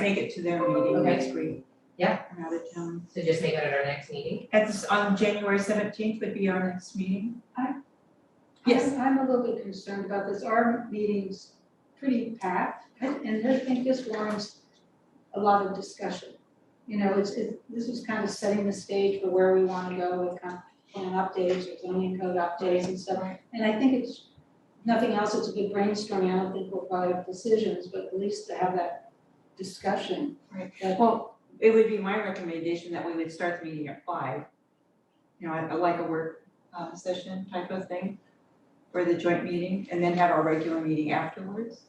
make it to their meeting Okay. next week. Yeah. I'm out of town. So just make it at our next meeting. At this, on January seventeenth would be our next meeting. Yes. I'm I'm a little bit concerned about this. Our meeting's pretty packed, and and I think this warrants a lot of discussion. You know, it's, it, this is kind of setting the stage for where we wanna go with comp plan updates or zoning code updates and stuff. And I think it's, nothing else, it's a good brainstorming. I don't think we'll probably have decisions, but at least to have that discussion. Right. That- Well, it would be my recommendation that we would start the meeting at five. You know, I- I like a work uh, session type of thing for the joint meeting and then have our regular meeting afterwards,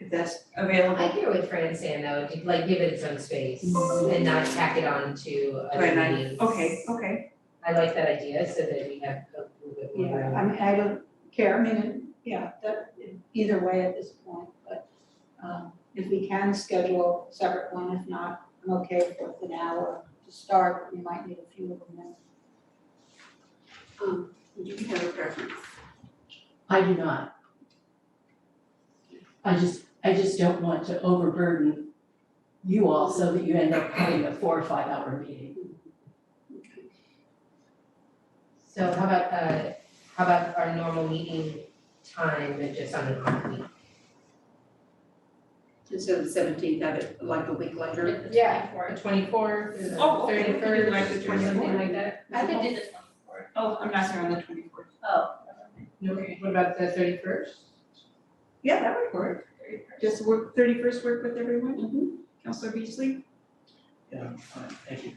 if that's I available. hear what Fran's saying though, to, like give it its own space and not tack it on to Mm-hmm. Right, other I- meetings. Okay, okay. I like that idea so that we have a little bit more Yeah, Mm-hmm. room. I mean, I don't care, I mean, it- yeah, that, either way at this point, but, um, if we can schedule a separate one, if not, I'm okay with an hour to start, we might need a few of them then. Um, do you have a preference? I do not. I just, I just don't want to overburden you all so that you end up having a four or five hour meeting. So how about, uh, how about our normal meeting time, but just on an off week? Instead of the seventeenth, have it like a week later? Yeah. The twenty-fourth, the Oh, okay, we could do thirty-first, like the or something 24th. like that? I could do the twenty-fourth. Oh, I'm not here on the twenty-fourth. Oh. No, what about the thirty-first? Yeah, that would work. Just work, thirty-first work with everyone? Mm-hmm. Counselor Beasley? Yeah, fine, thank you.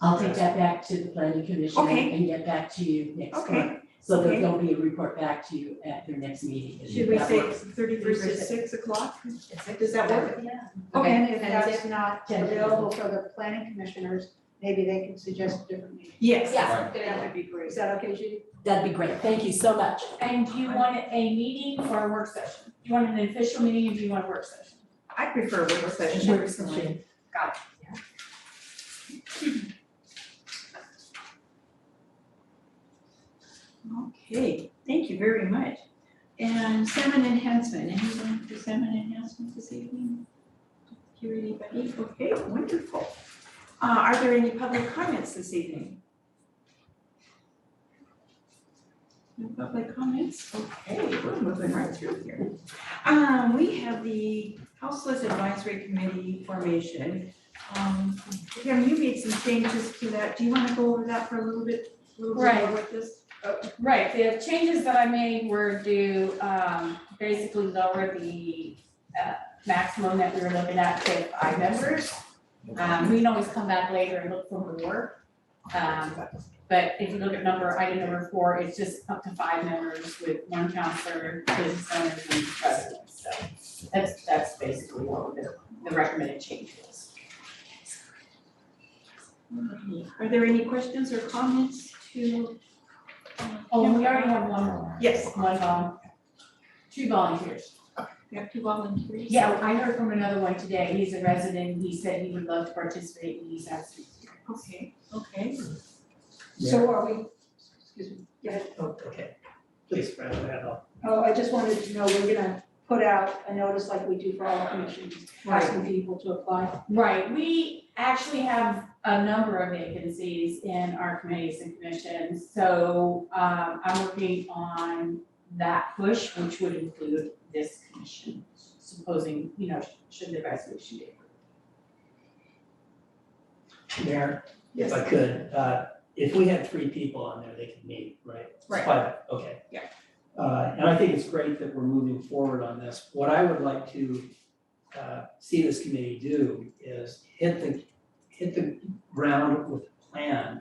I'll take that back to the planning commission Okay. and get back to you next month. Okay. So that Okay. there'll be a report back to you at your next meeting. Should we That say works. thirty-first at six o'clock? It's like, Does that work? Yeah. Okay. And if that's not Yeah. available for the planning commissioners, maybe they can suggest a different meeting. Yes. Yeah, good That idea. would be great. Is that okay, Judy? That'd be great, thank you so much. And do you want it a meeting or a work session? Do you want an official meeting or do you want a work session? I prefer work session. Work personally. session. Got Okay, thank you very much. And salmon enhancement, anyone for salmon enhancement this evening? Hear anybody? Okay, wonderful. Uh, are there any public comments this evening? No public comments? Okay, we're moving right through here. Um, we have the Houseless Advisory Committee formation. Um, Kim, you made some changes to that. Do you want to go over that for a little bit, a little bit more Right. with this? it. Right, the changes that I made were to um, basically lower the uh, maximum that we were looking at to five members. Um, We can always come back later and look for more. Um, But if you look at number, item number four, it's just up to five members with one counselor, business owners, and president. So that's, that's basically what the, the recommended change was. Are there any questions or comments to? um, Oh, and we Kim? already have one more. Yes, One vol, two volunteers. we have two volunteers. Yeah, I heard from another one today. He's a resident. He said he would love to participate and he's asked. me to. Okay, okay. So are we, excuse me, go ahead. Oh, okay. Please, Fran, go ahead, I'll- Oh, I just wanted to know, we're gonna put out a notice like we do for all commissions, asking people to apply. Right, we actually have a number of vacancies in our committees and commissions. So um, I'm working on that push, which would include this commission, supposing, you know, should the resolution be approved. Mayor, if I Yes, could, uh, if we had three people on there, they could meet, right? It's Right. private, okay. Yeah. Uh, and I think it's great that we're moving forward on this. What I would like to, uh, see this committee do is hit the, hit the ground with a plan.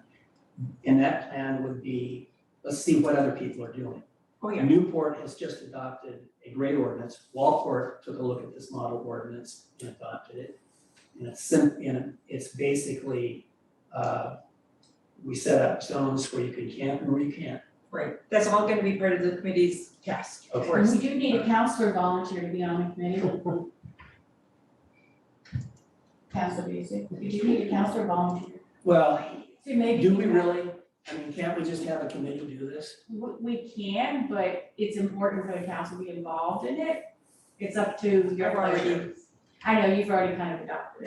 And that plan would be, let's see what other people are doing. oh yeah, Newport has just adopted a great ordinance. Walport took a look at this model ordinance and adopted it. And it's sim, and it's basically, uh, we set up zones where you can camp and where you can't. right. That's all gonna be part of the committee's task, of Okay. course. We do need a counselor volunteer to be on the committee. Counselor Busick, we do need a counselor volunteer. Well, So maybe. do we really, I mean, can't we just have a committee do this? We, we can, but it's important for the council to be involved in it. It's up to your. I've already- pleasure. I know, you've already kind of adopted it.